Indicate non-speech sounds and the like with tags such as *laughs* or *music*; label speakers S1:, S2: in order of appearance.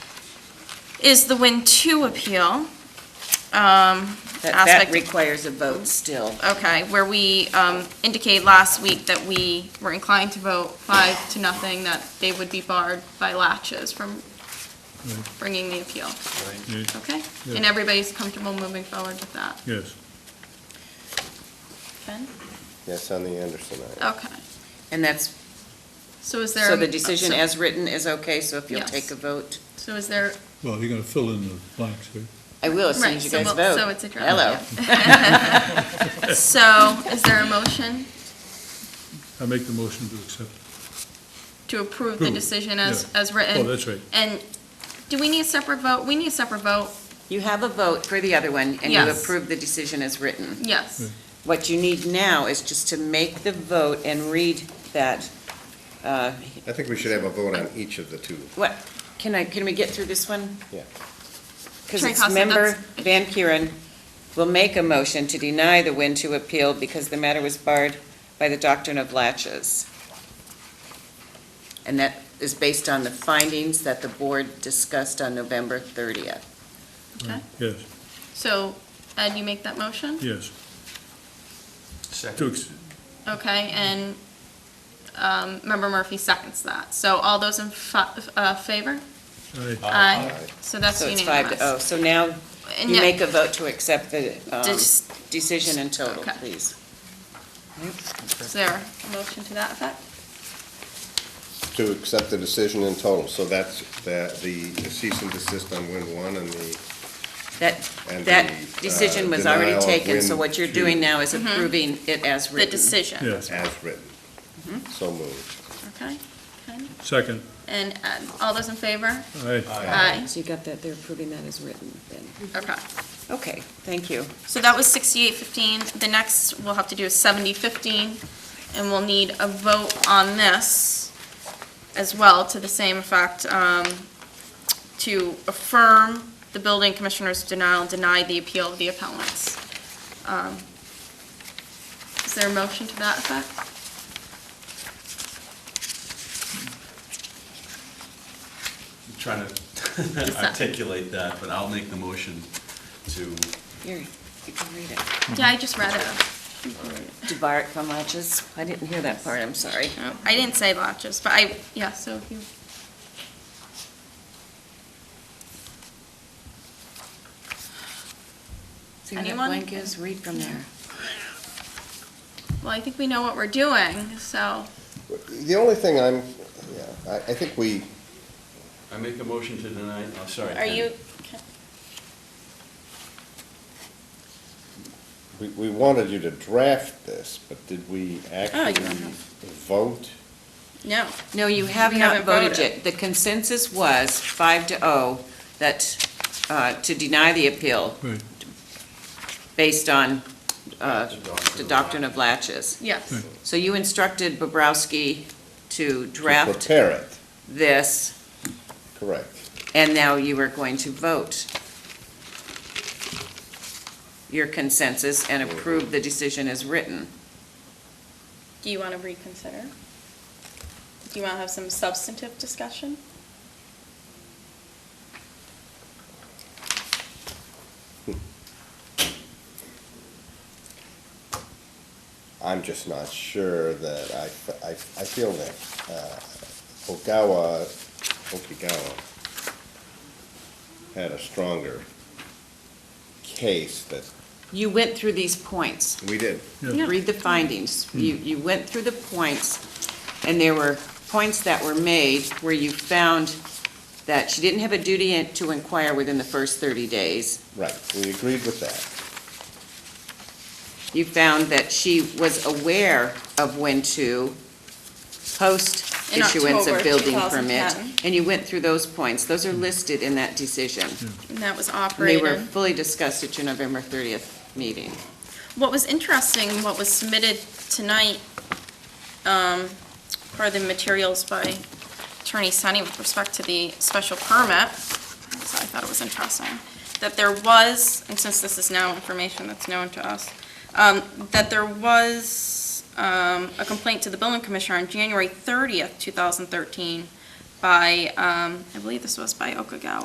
S1: is the Win 2 appeal. um,
S2: That, that
S1: aspect of
S2: requires a vote still.
S1: Okay, where we um, indicated last week that we were inclined to vote five to nothing, that they would be barred by latches from bringing the appeal.
S3: Yeah,
S1: Okay?
S3: Yeah.
S1: And everybody's comfortable moving forward with that?
S3: Yes.
S1: Ken?
S4: Yes, on the Anderson item.
S1: Okay.
S2: And that's,
S1: So is there?
S2: so
S1: a- um,
S2: the decision
S1: so-
S2: as written is okay, so if you'll
S1: Yes.
S2: take a vote.
S1: So is there,
S3: Well, you're going to fill in the blanks here.
S2: I will, as soon
S1: right,
S2: as you
S1: so
S2: guys
S1: we'll-
S2: vote.
S1: so it's a draft.
S2: Hello.
S1: yeah. *laughs* So is there a motion
S3: I make the motion to accept.
S1: to approve the
S3: Approve,
S1: decision as,
S3: yeah.
S1: as written?
S3: Oh, that's right.
S1: And do we need a separate vote? We need a separate vote,
S2: You have a vote for the other one, and you
S1: Yes.
S2: approve the decision as written.
S1: yes.
S2: What you need now is just to make the vote and read that. uh,
S4: I think we should have a vote on each of the two.
S2: What, can I, can we get through this one?
S4: Yeah.
S2: Because
S1: Sure,
S2: it's
S1: Costa,
S2: member
S1: that's-
S2: Van Kuren will make a motion to deny the win to appeal because the matter was barred by the doctrine of latches. And that is based on the findings that the board discussed on November 30th.
S1: Okay.
S3: Yes,
S1: So Ed, you make that motion?
S3: yes. To ex-
S1: Okay, and um, Member Murphy seconds that. So all those in fa- uh, favor?
S3: I-
S1: Aye.
S4: Aye.
S1: So that's
S2: So it's five to oh.
S1: unanimous.
S2: So now
S1: And
S2: you
S1: yet-
S2: make a vote to accept the um,
S1: Dis-
S2: decision in total,
S1: Okay.
S2: please.
S1: Is there a motion to that effect?
S4: To accept the decision in total, so that's the, the cease and desist on Win One and the,
S2: That,
S4: And
S2: that
S4: the, uh,
S2: decision was already
S4: denial of
S2: taken, so
S4: win
S2: what you're
S4: to-
S2: doing now is approving it as
S1: Mm-hmm. The
S2: written.
S1: decision?
S3: Yes,
S4: as written. So moved.
S1: Okay, Ken?
S3: second.
S1: and Ed, all those in favor?
S3: Aye.
S1: Aye.
S2: So you got that, they're approving that as written then?
S1: Okay.
S2: Okay, thank you.
S1: So that was sixty-eight fifteen. The next we'll have to do is seventy fifteen, and we'll need a vote on this as well, to the same effect, um, to affirm the building commissioner's denial, and deny the appeal of the appellants. Um, Is there a motion to that effect?
S5: I'm trying to articulate that, but I'll make the motion to,
S2: Here, you can read it.
S1: Yeah, I just read it.
S2: Debar from Latches, I didn't hear that part, I'm sorry.
S1: No, Oh, I didn't say latches, but I, yeah, so if you,
S2: See what that
S1: Anyone?
S2: blank is, read from there.
S1: well, I think we know what we're doing, so,
S4: The only thing I'm, yeah, I, I think we,
S5: I make a motion to deny, oh, sorry.
S1: are
S5: Ken.
S1: you,
S4: we, we wanted you to draft this, but did we actually
S1: don't know.
S4: vote?
S1: no.
S2: No, you have
S1: We
S2: not
S1: haven't
S2: voted
S1: voted.
S2: yet. The consensus was five to oh, that, uh, to deny the appeal
S3: Right,
S2: based on, uh,
S5: The doctrine of
S2: the doctrine of Latches.
S1: Yes,
S3: Right.
S2: So you instructed Bobrowski to draft
S4: Prepare it,
S2: this,
S4: correct.
S2: and now you are going to vote your consensus and approve the decision as written.
S1: do you want to reconsider? Do you want to have some substantive discussion?
S4: I'm just not sure that I, I, I feel that, uh, Ogawa, Okigawa had a stronger case that,
S2: You went through these points.
S4: we did.
S3: Yeah.
S2: Read the findings. You, you went through the points, and there were points that were made where you found that she didn't have a duty to inquire within the first 30 days.
S4: Right, we agreed with that.
S2: You found that she was aware of when to post
S1: In
S2: issuance of
S1: October
S2: building permit.
S1: 2010.
S2: And you went through those points. Those are listed in that decision.
S1: And that was
S2: And They were
S1: operated.
S2: fully discussed at your November 30th meeting.
S1: What was interesting, what was submitted tonight, um, are the materials by Attorney Sunny with respect to the special permit. So I thought it was interesting, that there was, and since this is now information that's known to us, um, that there was, um, a complaint to the building commissioner on January thirtieth, two thousand thirteen, by, um, I believe this was by Okagawa.